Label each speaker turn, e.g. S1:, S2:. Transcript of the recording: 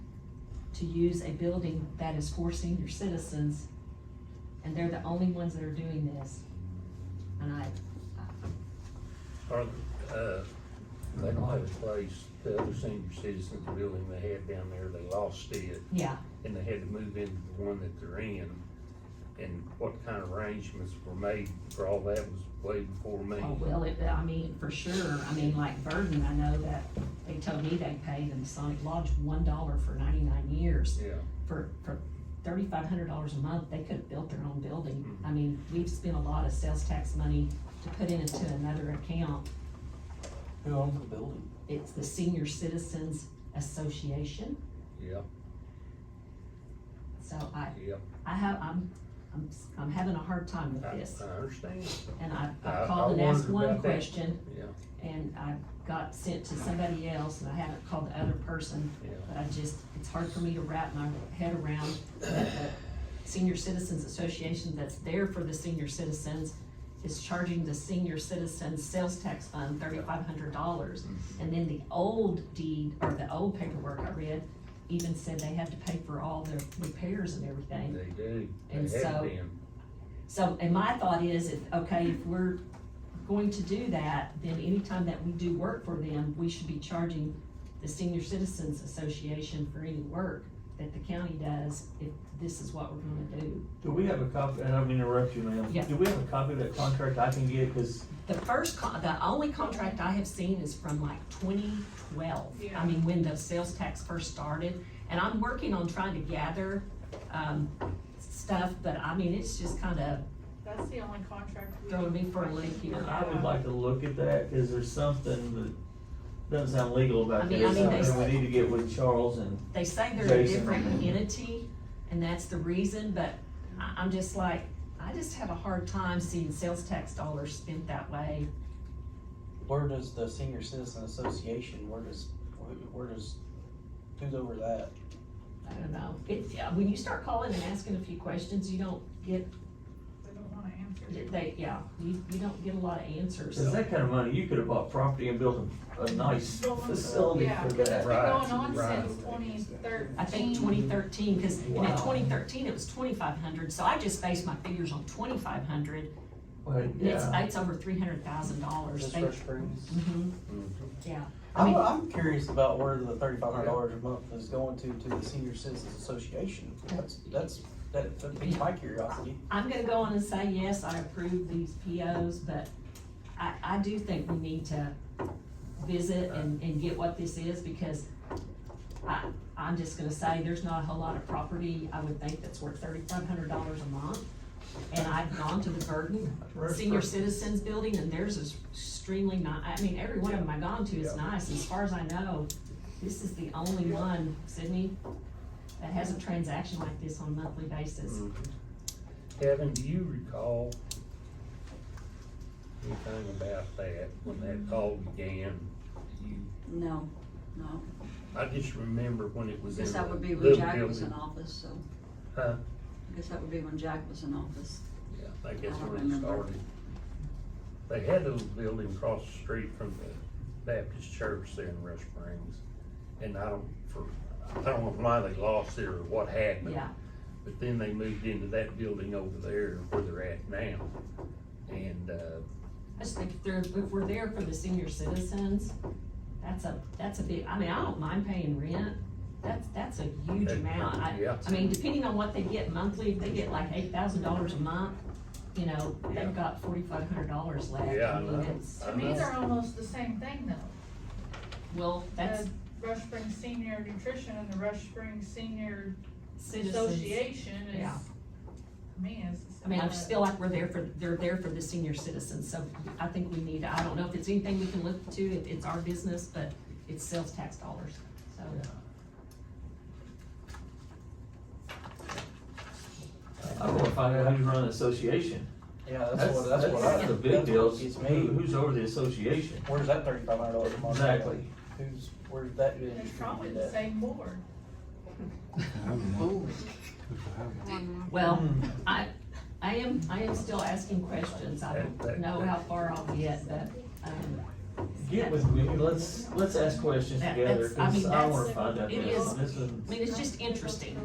S1: to use a building that is for senior citizens, and they're the only ones that are doing this. And I,
S2: Or, uh, they don't have a place, the other senior citizens, the building they had down there, they lost it,
S1: yeah,
S2: and they had to move into the one that they're in. And what kind of arrangements were made for all that was way before me.
S1: oh, well, it, I mean, for sure, I mean, like Burden, I know that they told me they paid the Masonic Lodge one dollar for ninety-nine years.
S2: Yeah,
S1: for, for thirty-five hundred dollars a month, they could have built their own building. I mean, we've spent a lot of sales tax money to put in into another account.
S3: Who owns the building?
S1: It's the Senior Citizens Association,
S2: yeah,
S1: so I,
S2: yeah.
S1: I have, I'm, I'm, I'm having a hard time with
S2: I,
S1: this.
S2: I understand,
S1: And I,
S2: I-
S1: I
S2: Uh, I
S1: called and asked
S2: wondered
S1: one
S2: about that.
S1: question,
S2: yeah,
S1: and I got sent to somebody else, and I haven't called the other person.
S2: yeah.
S1: But I just, it's hard for me to wrap my head around that the Senior Citizens Association that's there for the senior citizens is charging the senior citizens sales tax fund thirty-five hundred dollars.
S2: Mm-hmm.
S1: And then the old deed, or the old paperwork I read, even said they had to pay for all their repairs and everything.
S2: They do,
S1: And
S2: they have
S1: so-
S2: been,
S1: So, and my thought is, if, okay, if we're going to do that, then anytime that we do work for them, we should be charging the Senior Citizens Association for any work that the county does, if this is what we're gonna do.
S4: Do we have a copy, and I'm gonna interrupt you, ma'am.
S1: Yeah.
S4: Do we have a copy of that contract I can get, cause
S1: The first con, the only contract I have seen is from like twenty twelve. I mean, when the sales tax first started, and I'm working on trying to gather, um, stuff, but I mean, it's just kinda
S5: That's the only contract. we-
S1: throwing me for a loop here.
S4: I would like to look at that, cause there's something that doesn't sound legal
S1: I
S4: about
S1: mean-
S4: that.
S1: I mean, they-
S4: There's something we need to get with Charles and,
S1: they say they're a
S4: Jason.
S1: different entity, and that's the reason, but I, I'm just like, I just have a hard time seeing sales tax dollars spent that way.
S3: Where does the Senior Citizen Association, where does, wh- where does, who's over that?
S1: I don't know, it, yeah, when you start calling and asking a few questions, you don't get,
S5: They don't wanna answer.
S1: they, yeah, you, you don't get a lot of answers.
S4: cause that kind of money, you could have bought property and built a, a nice facility
S5: Yeah,
S4: for
S5: cause it's been
S4: that.
S2: Right,
S5: going on
S2: right.
S5: since twenty thirteen.
S1: I think twenty thirteen, cause and in
S4: Wow.
S1: twenty thirteen, it was twenty-five hundred, so I just based my figures on twenty-five hundred,
S4: But,
S1: and it's,
S4: yeah.
S1: it's over three hundred thousand dollars.
S3: Just Fresh Springs?
S1: hmm
S2: Mhm.
S1: yeah, I
S3: I'm,
S1: mean,
S3: I'm curious about where the thirty-five hundred dollars a month is going to, to the Senior Citizens Association. That's, that's, that, that piques my curiosity.
S1: I'm gonna go on and say, yes, I approve these POs, but I, I do think we need to visit and, and get what this is, because I, I'm just gonna say, there's not a whole lot of property, I would think, that's worth thirty-five hundred dollars a month. And I've gone to the Burden Senior Citizens Building, and theirs is extremely ni, I mean, every one of them I've gone to is nice, as far as I know. This is the only one, Sydney, that has a transaction like this on a monthly basis.
S2: Kevin, do you recall anything about that, when that call began? Do you-
S6: No, no,
S2: I just remember when it
S6: I
S2: was in
S6: guess
S2: the
S6: that
S2: little
S6: would be
S2: building.
S6: when Jack was in office, so.
S2: Huh?
S6: I guess that would be when Jack was in office.
S2: Yeah, I guess
S6: I don't
S2: when it
S6: remember.
S2: started. They had a little building across the street from the Baptist church there in Rush Springs. And I don't, for, I don't know why they lost it or what happened.
S1: Yeah,
S2: But then they moved into that building over there where they're at now. And, uh,
S1: I just think if they're, if we're there for the senior citizens, that's a, that's a big, I mean, I don't mind paying rent. That's, that's a huge
S2: that-
S1: amount. I,
S2: Yeah.
S1: I mean, depending on what they get monthly, if they get like eight thousand dollars a month, you know,
S2: Yeah.
S1: they've got forty-five hundred dollars left. I
S2: Yeah, I
S1: mean,
S2: know.
S1: it's-
S2: I
S5: To me, they're almost the same thing though.
S1: Well, that's
S5: The Rush Springs Senior Nutrition and the Rush Springs Senior
S1: citizens.
S5: Association is,
S1: Yeah.
S5: I mean, it's. the
S1: I mean, I
S5: same
S1: just
S5: thing.
S1: feel like we're there for, they're there for the senior citizens, so I think we need, I don't know if it's anything we can look to, it, it's our business, but it's sales tax dollars, so.
S4: I don't wanna find out how you run an association.
S3: Yeah, that's what, that's what I.
S4: That's the big deal,
S3: It's
S4: who,
S3: me.
S4: who's over the association?
S3: Where's that thirty-five hundred dollars a month?
S4: Exactly.
S3: Who's, where's that been?
S5: It's probably the same board.
S1: Well, I, I am, I am still asking questions, I don't know how far I'll get, but, um,
S4: get with me, let's, let's ask questions
S1: That-
S4: together,
S1: that's- I
S4: cause
S1: mean,
S4: I
S1: that's-
S4: wanna find out
S1: it
S4: this
S1: is-
S4: one, this one.
S1: I mean, it's just interesting.